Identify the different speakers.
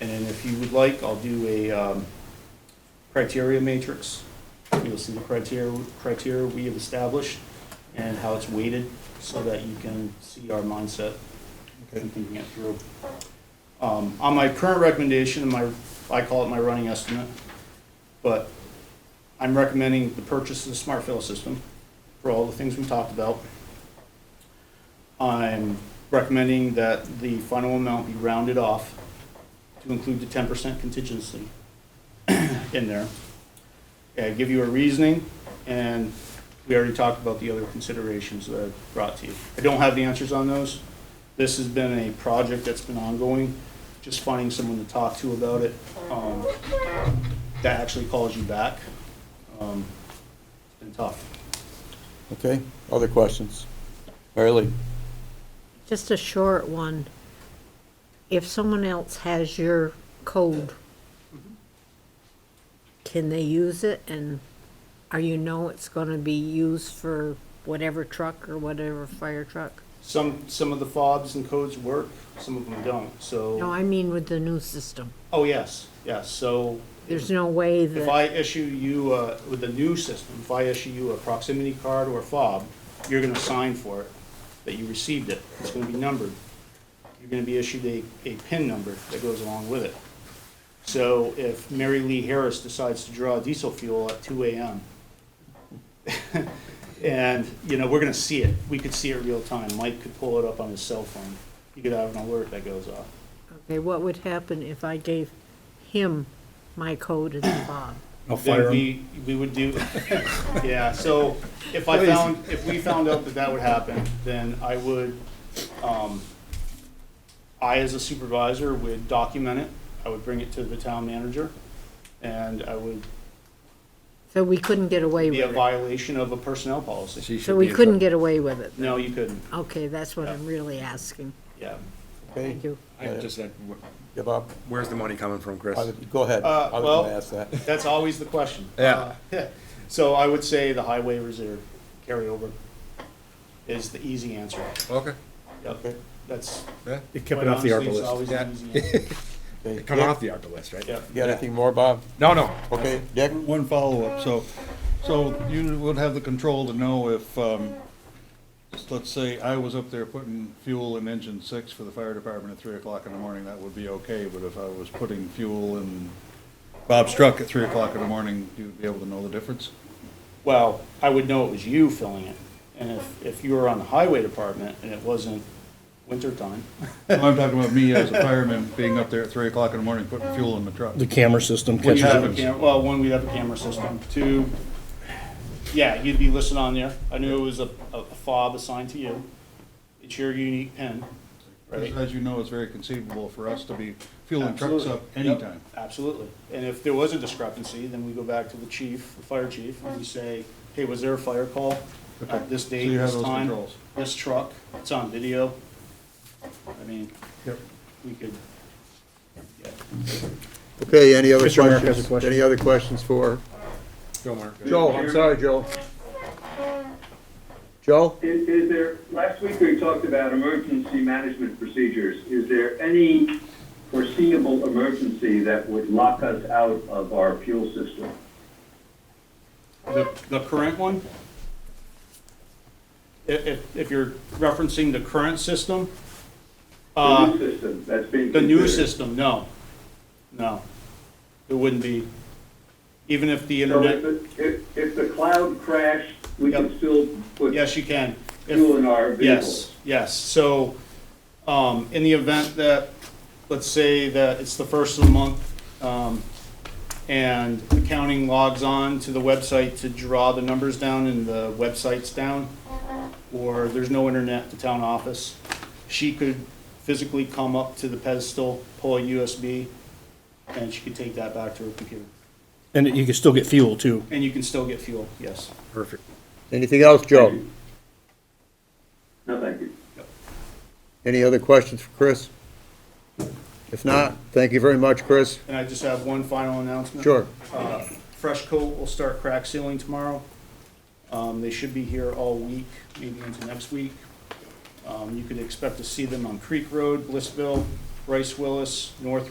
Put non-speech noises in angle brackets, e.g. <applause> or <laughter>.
Speaker 1: And if you would like, I'll do a um, criteria matrix. You'll see the criteria, criteria we have established and how it's weighted so that you can see our mindset
Speaker 2: Okay.
Speaker 1: and thinking it through. Um, On my current recommendation, my, I call it my running estimate, but I'm recommending the purchase of the smart fill system for all the things we talked about. I'm recommending that the final amount be rounded off to include the ten percent contingency <clears throat> in there. Okay, I give you a reasoning, and we already talked about the other considerations that I brought to you. I don't have the answers on those. This has been a project that's been ongoing, just finding someone to talk to about it, um, that actually calls you back. Um, It's been tough.
Speaker 2: Okay, other questions? Early.
Speaker 3: Just a short one. If someone else has your code, can they use it and are you know it's gonna be used for whatever truck or whatever fire truck?
Speaker 1: Some, some of the fobs and codes work, some of them don't,
Speaker 3: No,
Speaker 1: so,
Speaker 3: I mean with the new system.
Speaker 1: oh, yes, yes, so.
Speaker 3: There's no way
Speaker 1: If
Speaker 3: that,
Speaker 1: I issue you, uh, with the new system, if I issue you a proximity card or a fob, you're gonna sign for it, that you received it. It's gonna be numbered. You're gonna be issued a, a PIN number that goes along with it. So if Mary Lee Harris decides to draw diesel fuel at two AM, <laughs> and, you know, we're gonna see it. We could see it real time. Mike could pull it up on his cell phone. He could have an alert that goes off.
Speaker 3: okay, what would happen if I gave him my code and Bob?
Speaker 2: I'll
Speaker 1: Then we, we would do, <laughs> yeah, so if I
Speaker 2: Please.
Speaker 1: found, if we found out that that would happen, then I would, um, I as a supervisor would document it, I would bring it to the town manager, and I would
Speaker 3: So we couldn't get away
Speaker 1: be a
Speaker 3: with it.
Speaker 1: violation of a personnel policy.
Speaker 3: So we couldn't get away with it.
Speaker 1: No, you couldn't,
Speaker 3: Okay, that's what I'm really asking.
Speaker 1: yeah.
Speaker 2: Okay,
Speaker 3: Thank you.
Speaker 4: I just, said,
Speaker 2: give up.
Speaker 4: where's the money coming from, Chris?
Speaker 2: I would- Go ahead.
Speaker 1: Uh,
Speaker 2: I was
Speaker 1: well-
Speaker 2: gonna ask that.
Speaker 1: That's always the question.
Speaker 4: Yeah.
Speaker 1: Uh, So I would say the highway reserve carryover is the easy answer.
Speaker 4: Okay,
Speaker 1: Yep,
Speaker 2: Okay.
Speaker 1: that's.
Speaker 4: yeah.
Speaker 1: Keep it off the ARPA list.
Speaker 4: Yeah.
Speaker 2: Okay.
Speaker 4: Coming
Speaker 2: Dick,
Speaker 4: off the ARPA list, right?
Speaker 1: Yeah.
Speaker 2: You got anything more, Bob?
Speaker 4: No, no,
Speaker 2: Okay, Dick?
Speaker 5: One follow-up, so, so you would have the control to know if, um, just let's say I was up there putting fuel in engine six for the fire department at three o'clock in the morning, that would be okay, but if I was putting fuel in Bob's truck at three o'clock in the morning, you'd be able to know the difference? <laughs>
Speaker 1: Well, I would know it was you filling it, and if, if you were on the highway department and it wasn't wintertime,
Speaker 5: I'm talking about me as a fireman being up there at three o'clock in the morning putting fuel in the truck.
Speaker 6: The camera system
Speaker 1: we'd
Speaker 6: catches
Speaker 1: have a
Speaker 6: it.
Speaker 1: cam, well, one, we'd have a camera system, two, yeah, you'd be listed on there. I knew it was a, a fob assigned to you. It's your unique pin, right?
Speaker 5: As as you know, it's very conceivable for us to be fueling trucks up
Speaker 1: Absolutely. Yep,
Speaker 5: anytime.
Speaker 1: Absolutely. And if there was a discrepancy, then we go back to the chief, the fire chief, and we say, hey, was there a fire call
Speaker 5: Okay.
Speaker 1: at this
Speaker 5: So
Speaker 1: date,
Speaker 5: you have
Speaker 1: this
Speaker 5: those
Speaker 1: time?
Speaker 5: controls.
Speaker 1: This truck, it's on video. I mean,
Speaker 5: Yep.
Speaker 1: we could,
Speaker 2: Okay, any other
Speaker 6: Mr. Merrick has a
Speaker 2: questions?
Speaker 6: question.
Speaker 2: Any other questions for
Speaker 4: Joe Mark.
Speaker 2: Joe? I'm sorry, Joe. Joe?
Speaker 7: Is, is there, last week we talked about emergency management procedures. Is there any foreseeable emergency that would lock us out of our fuel system?
Speaker 1: the, the current one? If, if, if you're referencing the current system,
Speaker 7: The
Speaker 1: uh,
Speaker 7: new system that's being
Speaker 1: the new
Speaker 7: considered.
Speaker 1: system, no, no. It wouldn't be, even if the
Speaker 7: So
Speaker 1: internet.
Speaker 7: if, the- if, if the cloud crashed, we
Speaker 1: Yep.
Speaker 7: could still put
Speaker 1: Yes, you can. If-
Speaker 7: fuel in our
Speaker 1: Yes,
Speaker 7: vehicles?
Speaker 1: yes. So, um, in the event that, let's say that it's the first of the month, um, and accounting logs on to the website to draw the numbers down and the website's down, or there's no internet at the town office, she could physically come up to the pedestal, pull a USB, and she could take that back to her computer.
Speaker 6: And you can still get fuel too.
Speaker 1: And you can still get fuel, yes.
Speaker 4: Perfect.
Speaker 2: Anything else, Joe?
Speaker 7: No, thank you.
Speaker 2: Any other questions for Chris? If not, thank you very much, Chris.
Speaker 1: And I just have one final announcement.
Speaker 2: Sure.
Speaker 1: Uh, Fresh Coat will start crack sealing tomorrow. Um, They should be here all week, maybe into next week. Um, You could expect to see them on Creek Road, Blissville, Rice Willis, North